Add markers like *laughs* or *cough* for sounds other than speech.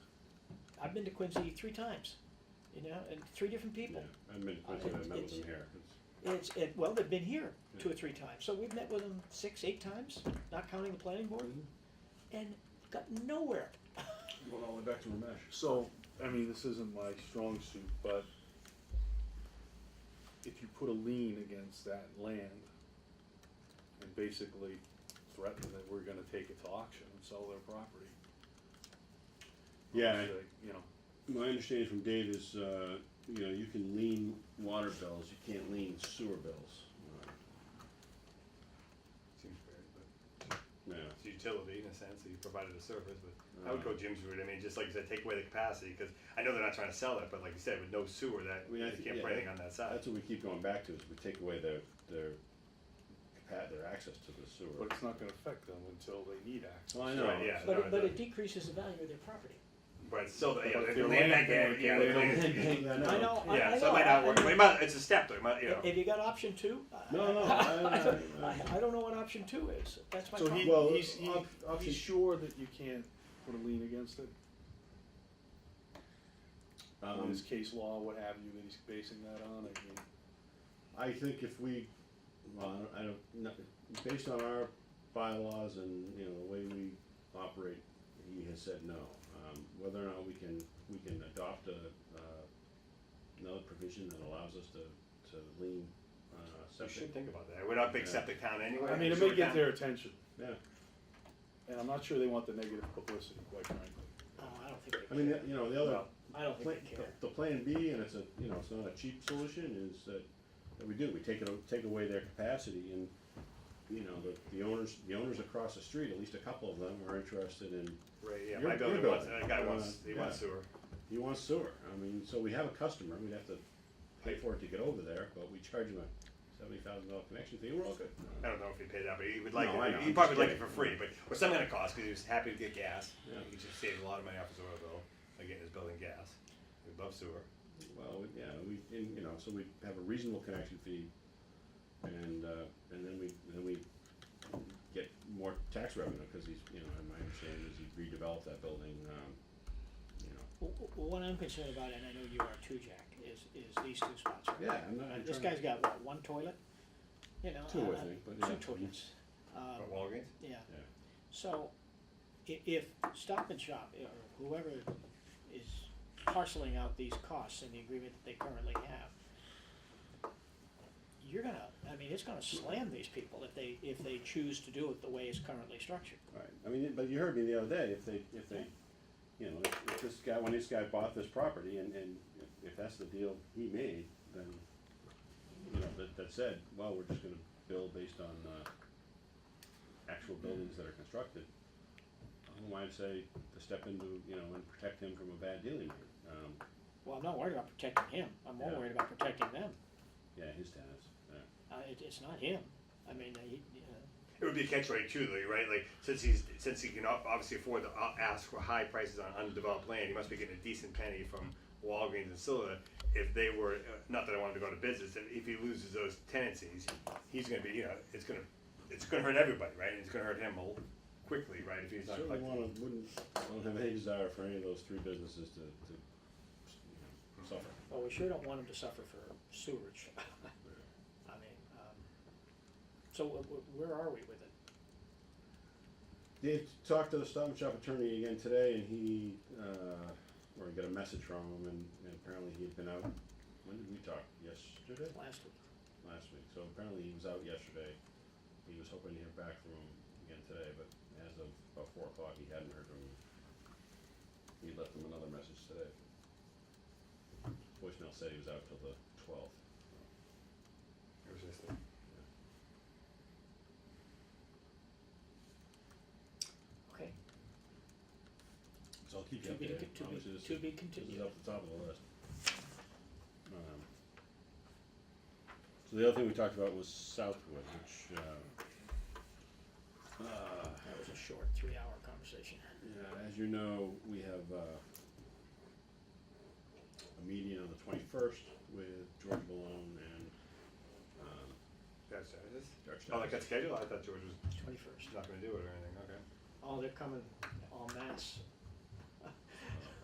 I've been to Quincy three times, you know, and three different people. Yeah, I've been to Quincy, and I've met with them here. It's, it, well, they've been here two or three times, so we've met with them six, eight times, not counting the planning board, Mm-hmm. and got nowhere. Well, all the way back to Ramesh. So, I mean, this isn't my strong suit, but if you put a lien against that land and basically threaten that we're gonna take it to auction and sell their property. Yeah, it's like, You know, my understanding from Dave is, uh, you know, you can lean water bills, you can't lean sewer bills. Seems fair, but Yeah, it's utility in a sense, that you provided a service, but I would go Right. Jim's route, I mean, just like you said, take away the capacity, cause I know they're not trying to sell it, but like you said, with no sewer, that, I mean, you I think- can't yeah, put anything on that side. that's what we keep going back to, is we take away their, their, capa- their access to the sewer. but it's not gonna affect them until they need access. Well, I Right, know, yeah. But, no, it- but the- it decreases the value of their property. But still, yeah, But if the they're land land bank, yeah, bank, yeah, they the don't land- I know. I know, I, I yeah, know. so it might not I- work, but it might, it's a step though, it might, you know. Have you got option two? No, no, I- I- I, *laughs* I don't know what option two is, that's my So he, problem. Well, he's, he- op- option- he's sure that you can't put a lien against it? Uh-huh. Um, His case law, what have you, that he's basing that on, I mean. I think if we, well, I don't- I don't, no, based on our bylaws and, you know, the way we operate, he has said no. Um, whether or not we can, we can adopt a, uh, another provision that allows us to, to lean, uh, You should septic. think about that, we're not a big Yeah. septic town anyway. I mean, it sewer may get town. their attention, Yeah, and I'm not sure they want the negative publicity, quite frankly. Oh, I don't think I they mean, care, the- you know, the other, Well, I don't pla- think they care. the plan B, and it's a, you know, it's not a cheap solution, is that, that we do, we take it, o- take away their capacity and, you know, the, the owners, the owners across the street, at least a couple of them are interested in, Right, yeah, Your- my building your wants, building. that guy Uh, wants, he wants yeah. sewer, He wants sewer, I mean, so we have a customer, we'd have to pay for it to get over there, but we charge him a seventy thousand dollar connection fee, we're all good. I don't know if he paid that, but he would like No, I know, it, he I'm probably just would like it kidding. for free, but, or some kind of cost, cause he was happy to get gas. Yeah. He just saved a lot of money off his oil bill, by getting his building gas, we love sewer. Well, we- yeah, we, and, you know, so we have a reasonable connection fee, and, uh, and then we, then we get more tax revenue, cause he's, you know, and my understanding is he redeveloped that building, um, you know. W- w- What I'm concerned about, and I know you are too, Jack, is, is these two spots right Yeah, I'm not, I'm This trying- guy's got what, one toilet? You know, Two, I uh, think, but Two yeah. Oh, toilets. Um, But Walgreens? yeah, Yeah, so i- if Stop and Shop or whoever is parceling out these costs in the agreement that they currently have, you're gonna, I mean, it's gonna slam these people if they, if they choose to do it the way it's currently structured. Right, I mean, but you heard me the other day, if they, if they, you know, if if this guy, when this guy bought this property and, and if- if that's the deal he made, then, you know, that, that said, well, we're just gonna build based on, uh, actual buildings that are constructed. I don't know why I'd say to step into, you know, and protect him from a bad deal he made, um, Well, I'm not worried about protecting him, I'm more Yeah. worried about protecting them. yeah, his tenants, yeah. Uh, it, it's not him, I mean, he, uh, you know. It would be a catch rate too, though, right? Like since he's since he can ob- obviously afford to o- ask for high prices on undeveloped land, he must be getting a decent penny from Walgreens and Scylla. If they were uh, not that I wanted to go out of business, if, if he loses those tenancies, he's going to be you know it's going to it's going to hurt everybody, right? And it's going to hurt him a l- quickly, right? If he's not Certainly collecting. wanna, wouldn't, don't have any desire for any of those three businesses to, to, you know, suffer. Well, we sure don't want them to suffer for *laughs* sewerage. I mean, um, so wh- wh- where are we with it? Dave talked to the Stop and Shop attorney again today, and he, uh, or he got a message from him, and, and apparently he had been out. When did we talk? Yesterday? Last week, Last week. So apparently he was out yesterday. He was hoping to hear back from him again today, but as of about four o'clock, he hadn't heard from him. He left him another message today. Voicemail said he was out till the twelfth. It was just a- okay, So I'll keep you to be, updated. to be, Obviously, this to is- be This is continued. up the top of the list. Um, So the other thing we talked about was Southwood, which, uh, uh, That was a short, three-hour conversation. yeah, as you know, we have, uh, a meeting on the twenty-first with George Malone and, um, that's Saturday. George Oh, like Douglas. that schedule? I thought George was Twenty-first. not going to do it or anything. Okay. Oh, they're coming en masse.